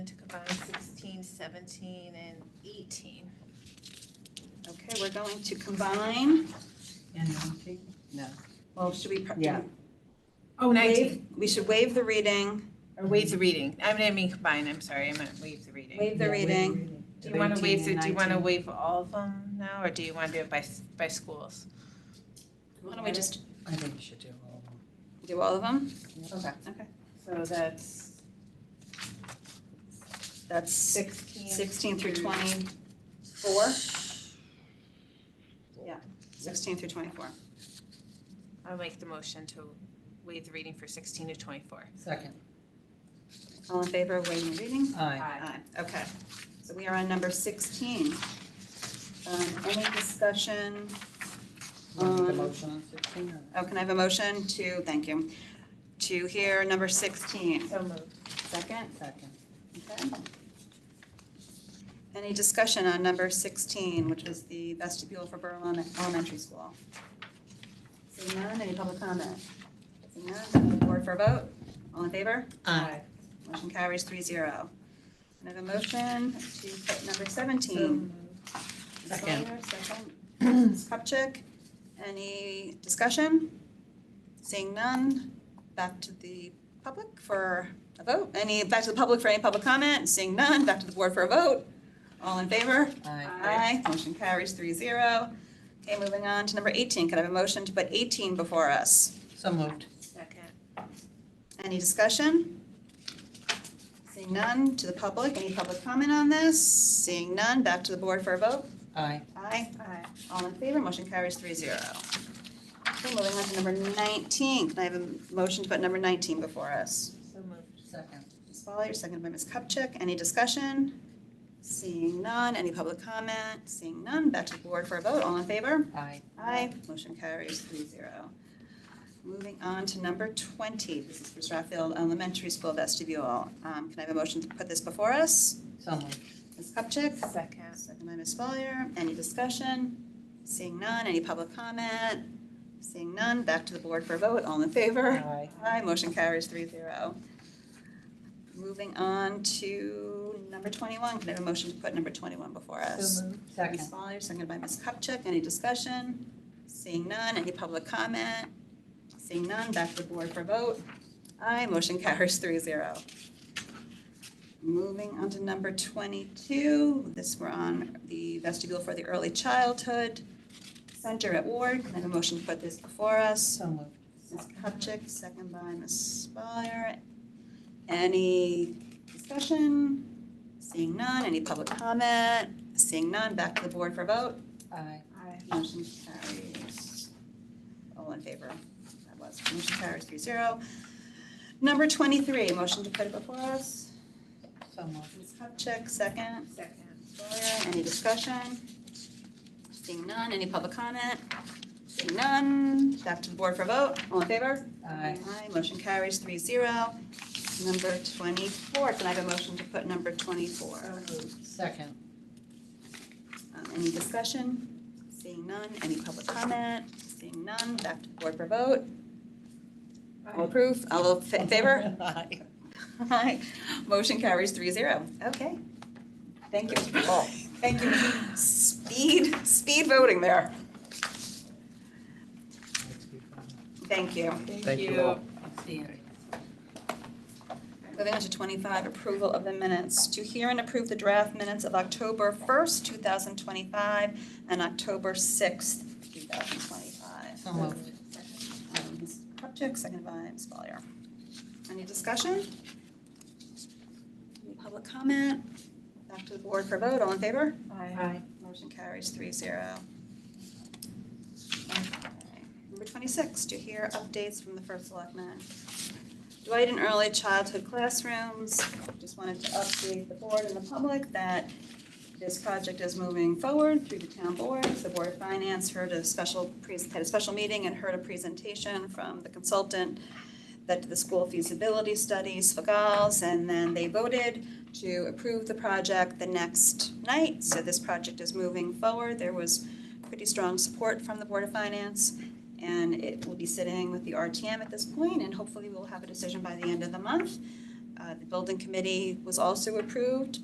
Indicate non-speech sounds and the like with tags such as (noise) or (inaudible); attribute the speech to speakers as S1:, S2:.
S1: To combine 16, 17, and 18.
S2: Okay, we're going to combine,
S3: And nineteen?
S2: well, should we? pr-
S3: Yeah.
S1: Oh,
S2: Waive- We should waive the reading,
S1: Or waive the reading. I mean, I mean combine, I'm sorry, I meant waive the reading.
S2: waive the reading.
S1: Do you want to waive, the- do you want to waive all of them now, or do you want to do it by, s- by schools?
S2: Why don't we just
S3: I think you should do all
S2: do all of them?
S1: Okay.
S2: Okay.
S1: So that's,
S2: That's six-
S1: 16.
S2: 16 through 24? Yeah, 16 through 24.
S1: I'll make the motion to waive the reading for 16 to 24.
S3: Second.
S2: All in favor of waiving the reading?
S3: Aye.
S2: Aye. Okay, so we are on number 16. Um, Any discussion?
S3: Want to make a
S2: Um,
S3: motion on sixteen or?
S2: Oh, can I have a motion to, thank you, to hear number 16?
S1: So moved.
S2: Second?
S3: Second.
S2: Okay. Any discussion on number 16, which was the vestibule for Borough Elemen- Elementary School? Seeing none, any public comment? Seeing none, then we'll board for a vote. All in favor?
S3: Aye.
S2: Motion carries 3-0. Can I have a motion to put number 17? Ms.
S3: Second.
S2: Lawler, second. Ms. Kupchak, any discussion? Seeing none, back to the public for a vote. Any, back to the public for any public comment? Seeing none, back to the board for a vote. All in favor?
S3: Aye.
S2: Aye. Motion carries three zero. Okay, moving on to number 18. Could I have a motion to put 18 before us?
S3: So moved.
S1: Second.
S2: Any discussion? Seeing none, to the public, any public comment on this? Seeing none, back to the board for a vote.
S3: Aye.
S2: Aye.
S1: Aye.
S2: All in favor, motion carries three zero. Okay, moving on to number 19, can I have a motion to put number 19 before us?
S1: So moved.
S3: Second.
S2: Ms. Follier, seconded by Ms. Kupchak, any discussion? Seeing none, any public comment? Seeing none, back to the board for a vote, all in favor?
S3: Aye.
S2: Aye. Motion carries three zero. Moving on to number 20, this is for Strathfield Elementary School vestibule. Um, Can I have a motion to put this before us?
S3: So moved.
S2: Ms. Kupchak?
S1: Second.
S2: Second by Ms. Follier. Any discussion? Seeing none, any public comment? Seeing none, back to the board for a vote. All in favor?
S3: Aye.
S2: Aye, motion carries three zero. Moving on to number 21. Can I have a motion to put number 21 before us?
S1: moved.
S2: Ms.
S3: Second.
S2: Follier, seconded by Ms. Kupchak. Any discussion? Seeing none, any public comment? Seeing none, back to the board for a vote. Aye, motion carries three zero. Moving on to number 22, this we're on the vestibule for the Early Childhood Center at Ward. Can I have a motion to put this before us?
S3: So moved.
S2: Ms. Kupchak, second by Ms. Spire. Any discussion? Seeing none, any public comment? Seeing none, back to the board for vote.
S3: Aye.
S1: Aye.
S2: Motion carries. All in favor? That was, motion carries three zero. Number twenty-three, motion to put it before us.
S3: So moved.
S2: Ms. Kupchak, second.
S1: Second.
S2: Gloria, any discussion? Seeing none, any public comment? Seeing none, back to the board for vote. All in favor?
S3: Aye.
S2: motion carries three zero. Number twenty-four, can I have a motion to put number twenty-four?
S3: Second.
S2: Um, Any discussion? Seeing none, any public comment? Seeing none, back to the board for vote. All approve, all those fa- in favor?
S3: (laughs) Aye.
S2: Aye. Motion carries three zero. Okay. Thank you. Thank you. Speed, speed voting there. Thank you.
S1: Thank you.
S3: Outstanding.
S2: Moving on to twenty-five, approval of the minutes. To hear and approve the draft minutes of October first, two thousand twenty-five, and October sixth, two thousand twenty-five.
S3: So moved.
S2: Um, Ms. Kupchak, second by Ms. Follier. Any discussion? Any public comment? Back to the board for vote, all in favor?
S1: Aye.
S2: Motion carries three zero. Number twenty-six, to hear updates from the first selectman. Dwight and early childhood classrooms, just wanted to update the board and the public that this project is moving forward through the town board. The Board of Finance heard a special, pres- had a special meeting and heard a presentation from the consultant that the school feasibility studies, FAGALs, and then they voted to approve the project the next night. So this project is moving forward. There was pretty strong support from the Board of Finance, and it will be sitting with the RTM at this point, and hopefully we'll have a decision by the end of the month. Um, Uh, The building committee was also approved